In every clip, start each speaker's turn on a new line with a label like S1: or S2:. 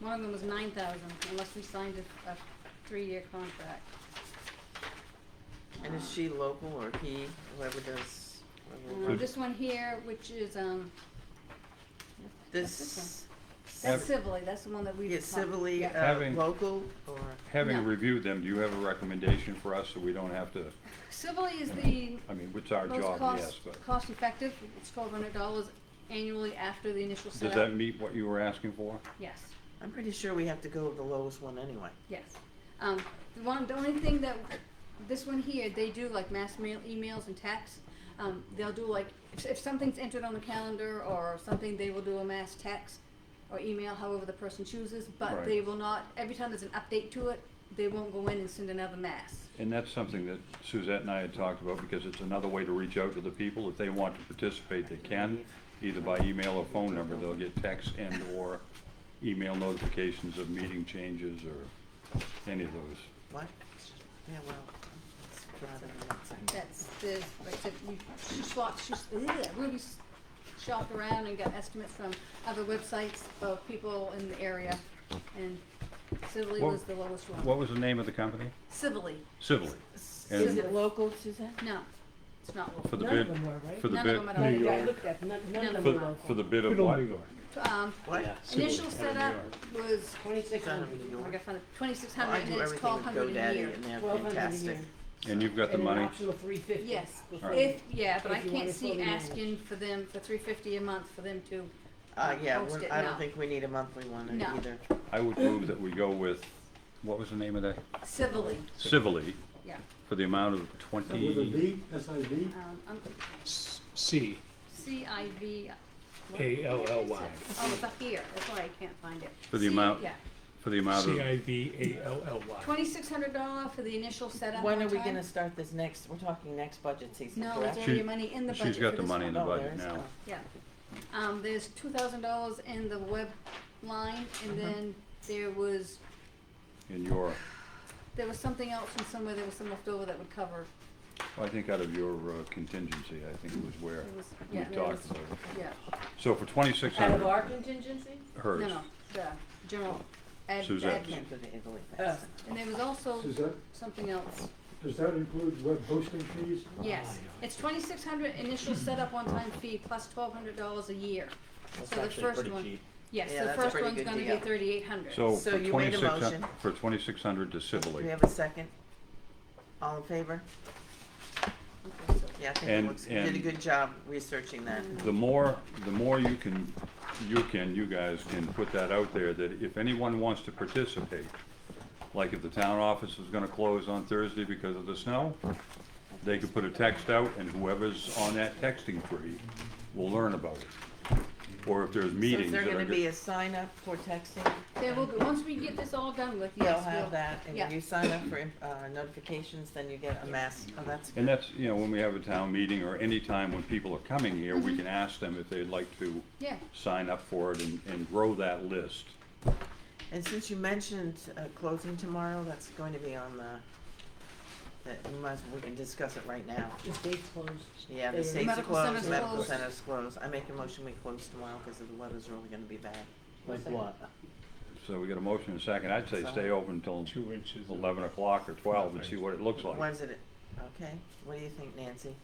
S1: One of them was nine thousand unless we signed a, a three-year contract.
S2: And is she local or he, whoever does? whoever
S1: Um,
S2: works-
S3: Could-
S1: this one here, which is, um. that's
S2: This,
S1: one. That's
S3: Have-
S1: civilly, that's the one that we.
S2: is civilly,
S1: Yeah.
S2: uh,
S3: Having-
S2: local or,
S1: No.
S3: Having reviewed them, do you have a recommendation for us so we don't have to,
S1: Civilly is the
S3: I mean, it's our
S1: most
S3: job,
S1: cost,
S3: yes, but
S1: cost-effective, it's twelve hundred dollars annually after the initial
S3: does
S1: setup.
S3: that meet what you were asking for?
S1: Yes.
S2: I'm pretty sure we have to go with the lowest one anyway.
S1: Yes. Um, the one, the only thing that, this one here, they do like mass mail, emails and texts. Um, they'll do like, if, if something's entered on the calendar or something, they will do a mass text or email, however the person chooses, but
S3: Right.
S1: they will not, every time there's an update to it, they won't go in and send another mass.
S3: And that's something that Suzette and I had talked about because it's another way to reach out to the people. If they want to participate, they can, either by email or phone number. They'll get text and or email notifications of meeting changes or any of those.
S2: What? Yeah, well, it's rather than that thing.
S1: That's, there's, like I said, we, she swapped, she's, ugh, Ruby s- shopped around and got estimates from other websites of people in the area, and civilly
S3: What-
S1: was the lowest one.
S3: What was the name of the company?
S1: Civilly,
S3: Civilly. And-
S4: Is it local, Suzanne?
S1: no, it's not
S3: For
S1: local.
S3: the
S4: None of
S3: bid,
S4: them were, right?
S3: for the
S1: None of
S3: bid,
S1: them at all.
S4: I
S1: New
S4: looked
S1: York.
S4: at, none, none of them were
S3: for,
S4: local.
S3: for the bid of
S5: Good old
S3: what?
S5: New York.
S1: Um,
S2: What?
S1: initial setup was,
S4: Twenty-six
S2: Kind of
S4: hundred.
S2: New
S1: I
S2: York.
S1: gotta find it, twenty-six
S2: Well, I
S1: hundred, and
S2: do
S1: then it's
S2: everything
S1: twelve
S2: with
S1: hundred a year.
S2: GoDaddy and they're
S4: Twelve hundred a
S2: fantastic.
S4: year.
S3: And you've got the money?
S4: And an optional three fifty.
S1: Yes,
S3: All right.
S1: if, yeah, but
S4: If
S1: I
S4: you
S1: can't
S4: wanna
S1: see
S4: fully manage.
S1: asking for them, for three fifty a month for them to,
S2: Uh, yeah,
S1: Post
S2: we're-
S1: it
S2: I
S1: now.
S2: don't think we need a monthly one
S1: No.
S2: either.
S3: I would move that we go with, what was the name of that?
S1: civilly,
S3: Civilly,
S1: yeah,
S3: for the amount of
S5: And With a
S3: twenty,
S5: V, S I V?
S1: um, I'm,
S6: C
S1: C I V.
S6: A L L Y.
S1: Oh, it's up here, that's why I can't find it.
S3: For the
S1: See,
S3: amount-
S1: Yeah,
S3: for the amount
S6: C
S3: of,
S6: I V A L L Y.
S1: twenty-six hundred dollar for the initial setup.
S2: When
S1: one
S2: are we
S1: time.
S2: gonna start this next, we're talking next budget season,
S1: No, there's
S2: correct?
S1: already
S3: She-
S1: money in the budget
S3: she's got
S1: for
S3: the
S1: this
S3: money
S1: one.
S3: in the
S2: Oh, there
S3: budget
S2: is-
S3: now.
S1: Yeah, um, there's two thousand dollars in the web line,
S2: Mm-hmm.
S1: and then there was,
S3: in your,
S1: there was something else from somewhere, there was some left over that would cover,
S3: I think out of your uh, contingency, I think was where
S1: it was,
S3: we
S1: yeah, there was,
S3: talked about it.
S1: yeah,
S3: So for twenty-six
S4: Out of
S3: hundred,
S4: our contingency?
S1: no,
S3: hers,
S1: no, the general ad,
S3: Suzanne's.
S1: admin.
S2: Can't go to Italy
S1: Oh.
S4: Uh,
S2: fast.
S1: And there was also
S5: Suzette,
S1: something else,
S5: does that include web hosting fees?
S1: yes, it's twenty-six hundred initial setup one-time fee plus twelve hundred dollars a year. So the first one, yes,
S2: Yeah,
S1: the
S2: that's a
S1: first
S2: pretty
S1: one's
S2: good
S1: gonna be
S2: deal.
S1: thirty-eight hundred.
S3: so
S2: So
S3: for
S2: you made a
S3: twenty-six, hun-
S2: motion.
S3: for twenty-six hundred
S2: Do
S3: to
S2: we
S3: civilly.
S2: have a second? All in favor? Yeah, I think it
S3: And-
S2: looks, you did a
S3: and-
S2: good job researching that.
S1: Mm-hmm.
S3: The more, the more you can, you can, you guys can put that out there, that if anyone wants to participate, like if the town office is gonna close on Thursday because of the snow, they could put a text out and whoever's on that texting tree will learn about it. Or if there's
S2: So
S3: meetings
S2: is there
S3: that are
S2: gonna be
S3: good.
S2: a sign up for texting?
S1: There will be, once we get this all done with,
S2: You'll
S1: yes, we'll.
S2: have that, and
S1: yeah.
S2: if you sign up for uh, notifications, then you get a mass, oh, that's
S3: And that's, you know, when we have a town meeting or any time when people are coming here,
S2: Mm-hmm.
S3: we can ask them if they'd like to
S1: Yeah,
S3: sign up for it and, and grow that list.
S2: And since you mentioned uh, closing tomorrow, that's going to be on the, that we might, as- we can discuss it right now.
S4: The state's closed.
S2: Yeah, the
S4: They-
S2: state's
S1: Medical center's
S2: closed, medical
S1: closed.
S2: center's closed. I make a motion we close tomorrow because the weather's really gonna be bad.
S5: Like what?
S3: So we got a motion and a second. I'd say stay open until
S6: Two inches. of-
S3: eleven o'clock or twelve and see what it looks like.
S2: When's it, okay, what do you think, Nancy?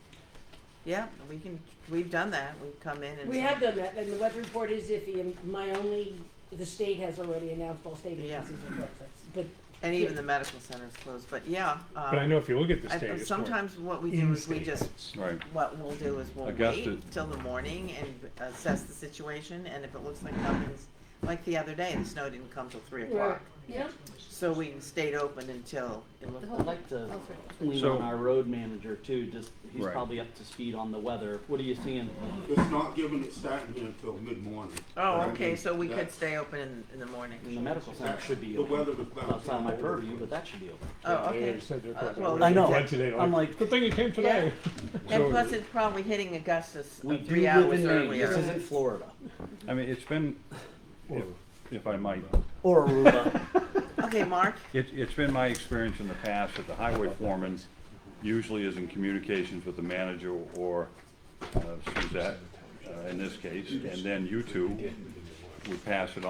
S2: Yeah, we can, we've done that, we've come in and.
S4: We have done that, and the web report is iffy, and my only, the state has already announced all state
S2: Yeah.
S4: agencies are closed, that's- but
S2: And even the medical center's closed, but yeah. um,
S6: But I know if you look at the
S2: I-
S6: state, it's more
S2: Sometimes what we do is we
S6: in-state.
S2: just
S3: Right.
S2: What we'll do is we'll
S3: Augusta-
S2: wait till the morning and assess the situation, and if it looks like nothing's, like the other day, the snow didn't come till three o'clock.
S1: yeah,
S2: So we stayed open until it looked
S1: The
S7: I'd
S2: like,
S7: like to
S1: all three.
S7: lean
S3: So-
S7: on our road manager too, just, he's
S3: Right.
S7: probably up to speed on the weather. What are you seeing?
S8: It's not given, it's starting here until mid-morning.
S2: oh,
S8: I
S2: okay,
S8: mean,
S2: so we could
S8: that's-
S2: stay open in, in the morning.
S7: And the medical center should be
S8: The weather
S7: open.
S8: was bad.
S7: Outside of my purview, but that should be open.
S2: Oh,
S6: Yeah,
S2: okay.
S6: they said they're
S2: Uh,
S6: closed.
S2: well,
S6: I
S7: I know.
S6: went today,
S7: I'm
S6: like,
S7: like-
S6: good thing you came today.
S2: And plus, it's probably hitting Augustus uh,
S7: We do
S2: three
S7: live
S2: hours
S7: in Maine, this
S2: earlier.
S7: isn't Florida.
S3: I mean, it's been, if, if I might,
S7: Or Aruba.
S2: Okay, Mark,
S3: it, it's been my experience in the past that the highway foreman usually is in communications with the manager or uh, Suzette, uh, in this case, and then you two would pass it